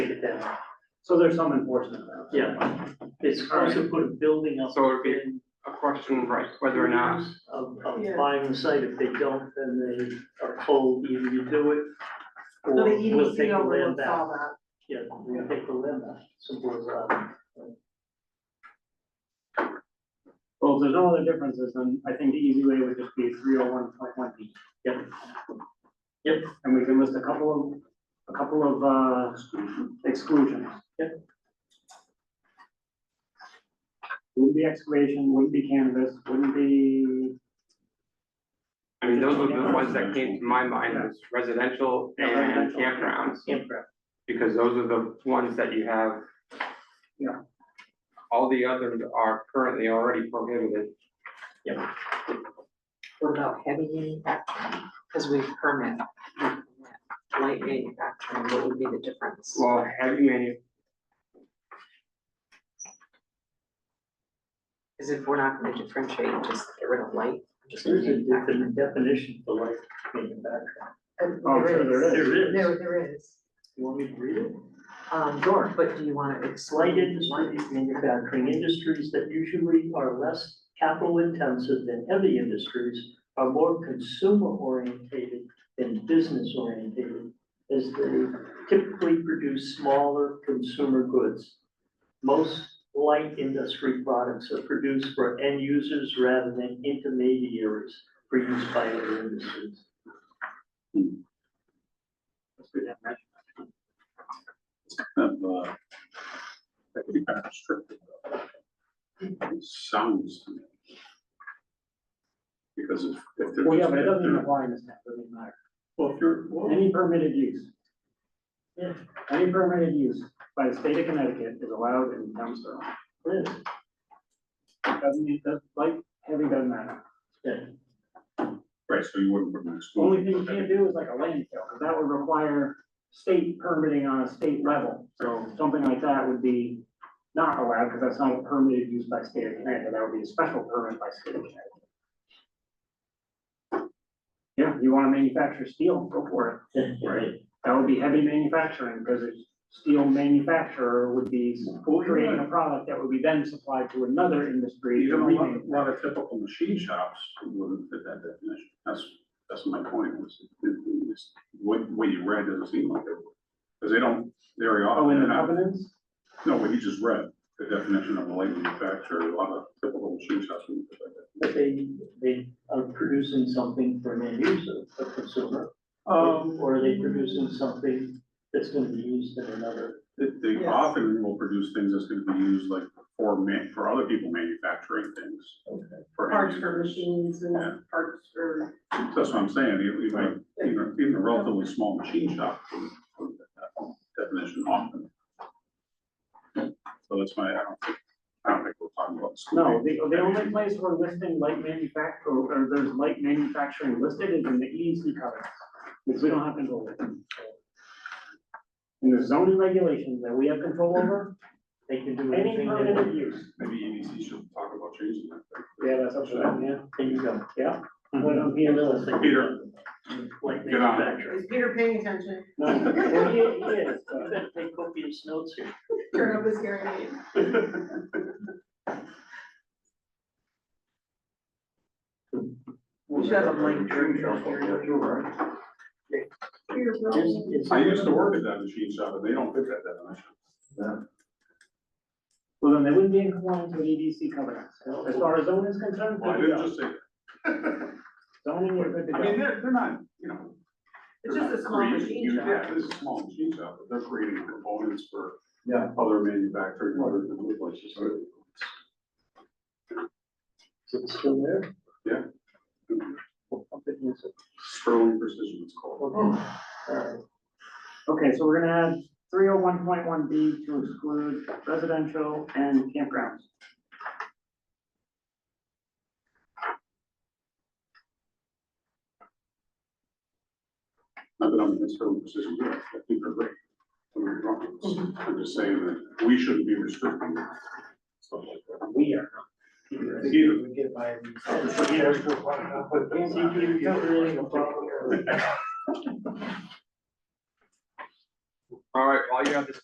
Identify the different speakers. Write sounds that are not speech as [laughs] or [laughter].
Speaker 1: down.
Speaker 2: So there's some enforcement. of that.
Speaker 1: Yeah. It's hard to put a building up
Speaker 3: So it would be-
Speaker 1: in
Speaker 3: a question, right, whether or not,
Speaker 1: of, of buying the site. If they don't, then they are told either you do it
Speaker 4: So the E
Speaker 1: or we'll take
Speaker 4: EDC
Speaker 1: the land
Speaker 4: overlooks
Speaker 1: back.
Speaker 4: all that.
Speaker 1: Yeah, we'll take the land
Speaker 2: uh,
Speaker 1: back. Simple as that.
Speaker 2: Well, if there's no other differences, then I think the easy way would just be three oh one point one B.
Speaker 1: Yep. Yep.
Speaker 2: And we can list a couple of, a couple of, uh, exclusions.
Speaker 1: Yep.
Speaker 2: Wouldn't be excavation, wouldn't be cannabis, wouldn't be,
Speaker 3: I mean, those were the ones that came to my mind, was residential and campgrounds,
Speaker 1: Campground.
Speaker 3: because those are the ones that you have.
Speaker 2: Yeah.
Speaker 3: All the others are currently already prohibited.
Speaker 4: What about heavy manufacturing? Because we permit light manufacturing, what would be the difference?
Speaker 3: Well, heavy manu,
Speaker 4: Because if we're not gonna differentiate, just get rid of light, just
Speaker 1: There's a different
Speaker 4: manufacturing.
Speaker 1: definition for life in background.
Speaker 2: oh, I'm sure there is.
Speaker 1: There is.
Speaker 4: there is.
Speaker 1: You want me to read it?
Speaker 4: Um,
Speaker 1: Sure.
Speaker 4: but do you wanna
Speaker 1: Light
Speaker 4: explain? why?
Speaker 1: industries, manufacturing industries that usually are less capital intensive than heavy industries are more consumer orientated than business orientated, as they typically produce smaller consumer goods. Most light industry products are produced for end users rather than intermediaries for use by other industries.
Speaker 2: Let's do that, right?
Speaker 5: kind of, uh, that could be kind of restrictive. It sounds to me. Because if, if they're.
Speaker 2: Well, yeah,
Speaker 5: just-
Speaker 2: but it doesn't
Speaker 5: if
Speaker 2: even
Speaker 5: they're-
Speaker 2: apply in this town, it doesn't matter.
Speaker 5: Well, if you're, well,
Speaker 2: Any permitted use.
Speaker 1: Yeah.
Speaker 2: Any permitted use by the state of Connecticut is allowed in town Sterling.
Speaker 1: Liz,
Speaker 2: It Doesn't, it does, like, heavy doesn't matter.
Speaker 5: right, so you wouldn't, wouldn't exclude.
Speaker 2: Only thing you can't do is like a landfill, because that would require state permitting on a state level. So something like that would be not allowed, because that's not a permitted use by state of Connecticut, that would be a special permit by state of Connecticut. Yeah, you wanna manufacture steel, go for it.
Speaker 1: Right.
Speaker 2: That would be heavy manufacturing, because a steel manufacturer would be
Speaker 5: Well, you're
Speaker 2: creating
Speaker 5: right.
Speaker 2: a product that would be then supplied to another industry.
Speaker 5: Even
Speaker 2: to
Speaker 5: a lot, a
Speaker 2: remake.
Speaker 5: lot of typical machine shops wouldn't fit that definition. That's, that's my point, was it- it- it's- what, what you read doesn't seem like it. Because they don't, very often.
Speaker 2: Oh, in the
Speaker 5: they're not-
Speaker 2: covenants?
Speaker 5: No, what you just read, the definition of a light manufacturer, a lot of typical machine shops wouldn't fit that.
Speaker 1: But they, they are producing something for an end user, a consumer.
Speaker 2: Um,
Speaker 1: Or are they producing something that's gonna be used in another?
Speaker 5: They, they
Speaker 4: Yes.
Speaker 5: often will produce things that's gonna be used like for man, for other people manufacturing things. For
Speaker 6: parts
Speaker 5: end
Speaker 6: for
Speaker 5: users.
Speaker 6: machines
Speaker 5: Yeah.
Speaker 6: and parts for,
Speaker 5: So That's what I'm saying, even, even, even- even a relatively small machine shop would, would fit that definition often. So that's why I don't think, I don't think we're talking about.
Speaker 2: No,
Speaker 5: excluding-
Speaker 2: the, the only place we're listing light manufacture, or there's light manufacturing listed is in the E EDC covenants, because we don't have control over them. And the zoning regulations that we have control over,
Speaker 1: They can do
Speaker 2: any
Speaker 1: anything they want.
Speaker 2: permitted use.
Speaker 5: Maybe EDC should talk about changing that.
Speaker 2: Yeah, that's up to them, yeah.
Speaker 1: There you go.
Speaker 2: What I'm hearing is-
Speaker 5: Peter.
Speaker 1: Like
Speaker 5: Get on it.
Speaker 1: manufacturing.
Speaker 6: is Peter paying attention?
Speaker 2: No,
Speaker 1: [laughs]
Speaker 2: well, yeah, yeah, it's,
Speaker 1: You
Speaker 2: uh,
Speaker 1: better take copious notes here.
Speaker 6: Turn up his hearing aid.
Speaker 1: We
Speaker 6: should have a blank drink down here. Peter, bro.
Speaker 1: It's- it's-
Speaker 5: [laughs] I used to work at that machine shop, and they don't fit that definition.
Speaker 2: Well, then they wouldn't be in compliance with E EDC covenants, as far as zoning is concerned,
Speaker 5: Well, I
Speaker 2: good to
Speaker 5: didn't
Speaker 2: go.
Speaker 5: just say. that. [laughs]
Speaker 2: zoning, we're good to
Speaker 5: I mean,
Speaker 2: go.
Speaker 5: they're, they're not, you know.
Speaker 6: It's
Speaker 5: they're
Speaker 6: just a
Speaker 5: not
Speaker 6: small
Speaker 5: creating
Speaker 6: machine
Speaker 5: huge-
Speaker 6: shop.
Speaker 5: Yeah, this is a small machine shop, but they're creating components for
Speaker 1: Yeah.
Speaker 5: other manufacturing, other other places. so
Speaker 1: Is it still there?
Speaker 5: Yeah.
Speaker 1: I'll put this up.
Speaker 5: Sterling precision it's called.
Speaker 1: Okay. All right.
Speaker 2: Okay, so we're gonna add three oh one point one B to exclude residential and campgrounds.
Speaker 5: Not that I'm against Sterling precision, but I think they're great. Don't get me
Speaker 6: Mm-hmm.
Speaker 5: wrong. I'm just saying that we shouldn't be restricting stuff like that.
Speaker 2: We are.
Speaker 5: Either.
Speaker 1: Yeah.
Speaker 3: all right, while you have this